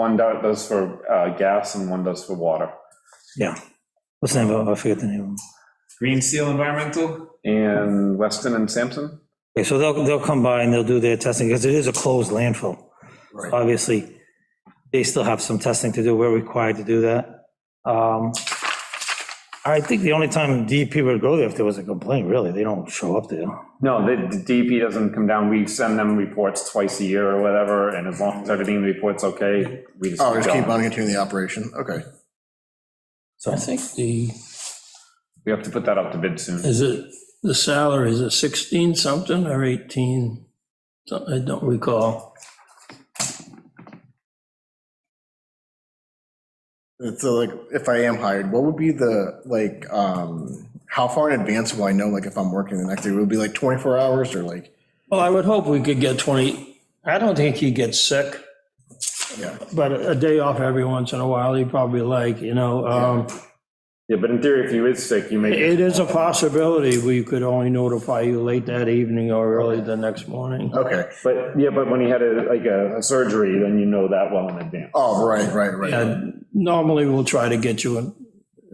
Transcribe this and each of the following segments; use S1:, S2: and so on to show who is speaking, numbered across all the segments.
S1: One do- does for uh, gas and one does for water.
S2: What's the name of, it? I forget the name. of it.
S3: Green Seal Environmental?
S1: And Weston and Sampson?
S2: Okay, so they'll, they'll come by and they'll do their testing, because it is a closed landfill.
S3: Right.
S2: Obviously, they still have some testing to do, we're required to do that. Um, I think the only time DEP would go there if there was a complaint, really, they don't show up there.
S1: No, the the DEP doesn't come down. We send them reports twice a year or whatever, and as long as everything in the report's okay, we just.
S4: Oh, just keep
S1: go.
S4: on continuing the operation, okay.
S2: So,
S5: I think the,
S1: We have to put that up to bid soon.
S5: is it, the salary, is it 16 something or 18? Some- I don't recall.
S4: So like, if I am hired, what would be the, like, um, how far in advance will I know, like, if I'm working the next day? Will it be like 24 hours or like,
S5: Well, I would hope we could get 20, I don't think he gets sick,
S4: yeah,
S5: but a day off every once in a while, he'd probably like, you know. um,
S1: Yeah, but in theory, if you is sick, you may,
S5: It is a possibility, we could only notify you late that evening or early the next morning.
S4: okay.
S1: but, yeah, but when he had a, like a a surgery, then you know that well in advance.
S4: Oh, right, right, right.
S5: Yeah, normally we'll try to get you, in-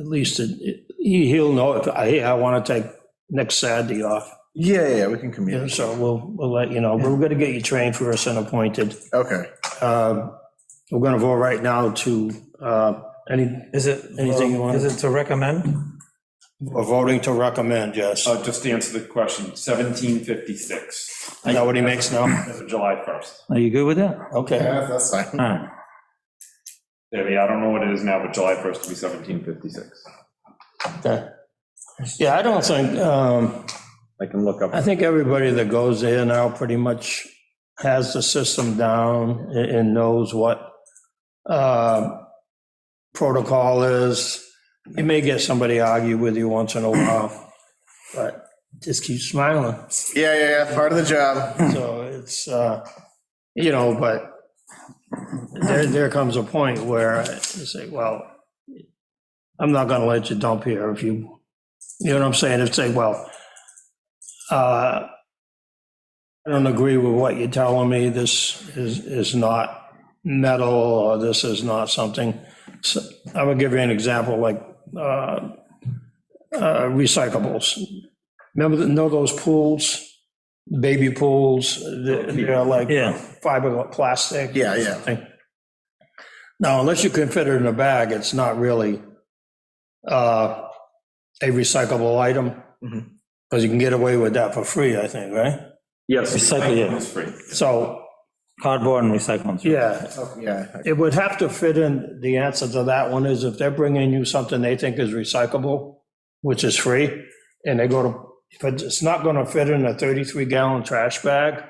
S5: at least, it- he, he'll know if, hey, I want to take next Saturday off.
S4: Yeah, yeah, we can
S5: Yeah,
S4: commute,
S5: so we'll, we'll let you know. We're gonna get you trained first and appointed.
S4: okay.
S5: Uh, We're gonna go right now to, uh, any,
S2: Is it,
S5: Anything you want?
S2: is it to recommend?
S5: voting to recommend, yes.
S1: Uh, Just to answer the question, 1756,
S5: I know what he makes now.
S1: as of July 1st.
S2: Are you good with that?
S5: Okay.
S4: Yeah, That's fine.
S2: All right,
S1: Yeah, yeah, I don't know what it is now, but July 1st will be 1756.
S5: okay. Yeah, I don't think, um,
S1: I can look up.
S5: I think everybody that goes there now pretty much has the system down a- and knows what uh, protocol is. You may get somebody argue with you once in a while, but just keep smiling.
S4: Yeah, yeah, yeah, part of the job.
S5: So it's, uh, you know, but there, there comes a point where you say, well, I'm not gonna let you dump here if you, you know what I'm saying? If say, well, uh, I don't agree with what you're telling me, this is, is not metal, or this is not something. So I would give you an example, like, uh, uh, recyclables. Remember, the- know those pools, baby pools, they're they're like
S2: yeah,
S5: fiberglass.
S4: Yeah, yeah.
S5: Now, unless you consider it in a bag, it's not really uh, a recyclable item,
S4: Mhm.
S5: because you can get away with that for free, I think, right?
S1: Yes.
S2: Recycle, yeah.
S1: It's free.
S5: So,
S2: cardboard and recycling.
S5: yeah,
S4: Yeah,
S5: it would have to fit in, the answer to that one is if they're bringing you something they think is recyclable, which is free, and they go to, if it's not going to fit in a 33 gallon trash bag,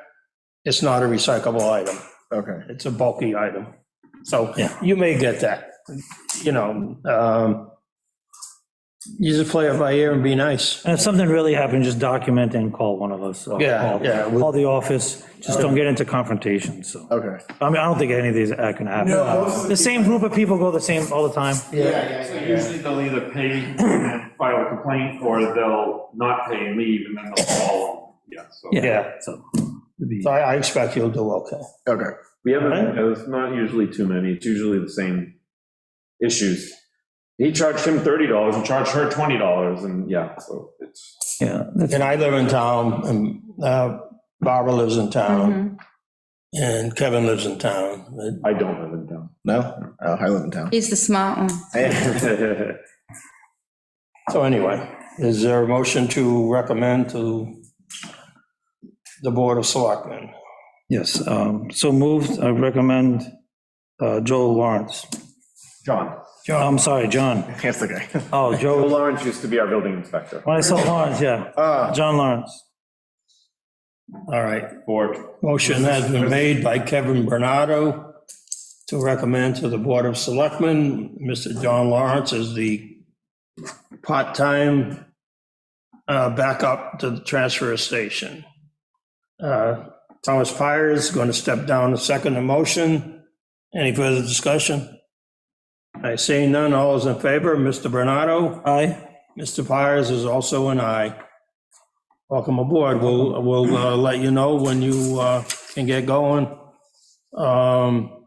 S5: it's not a recyclable item.
S4: okay.
S5: it's a bulky item. So
S2: Yeah.
S5: you may get that, you know. um, You just play it by ear and be nice.
S2: And if something really happened, just document and call one of us. or
S5: Yeah,
S2: call-
S5: yeah, we-
S2: Call the office, just don't get into confrontation, so.
S4: Okay.
S2: I mean, I don't think any of these are gonna happen. The same group of people go the same all the time.
S1: So usually they'll either pay and then file a complaint, or they'll not pay and leave, and then they'll call. Yeah, so.
S5: Yeah.
S2: So.
S5: So I I expect you'll do okay.
S4: Okay.
S1: We haven't, it's not usually too many, it's usually the same issues. He charged him thirty dollars and charged her twenty dollars, and yeah, so it's.
S2: Yeah, that's-
S5: And I live in town, and uh, Barbara lives in town, and Kevin lives in town. But
S1: I don't live in town.
S4: No? Oh, I live in town.
S6: He's the smart one.
S5: So anyway, is there a motion to recommend to the Board of Selectmen?
S2: Yes, um, so moved, I recommend uh, Joe Lawrence.
S1: John,
S2: I'm sorry, John.
S4: That's okay.
S2: Oh,
S1: Joe
S2: Joe,
S1: Lawrence used to be our building inspector
S2: when I said Lawrence, yeah,
S4: Uh,
S2: John Lawrence.
S5: All right,
S1: for,
S5: Motion has been made by Kevin Bernardo to recommend to the Board of Selectmen, Mr. John Lawrence is the part-time uh, backup to the transfer station. Uh, Thomas Pires is going to step down to second the motion. Any further discussion? I see none, all is in favor, Mr. Bernardo?
S2: Aye,
S5: Mr. Pires is also an aye. Welcome aboard. We'll, we'll uh, let you know when you uh, can get going. Um,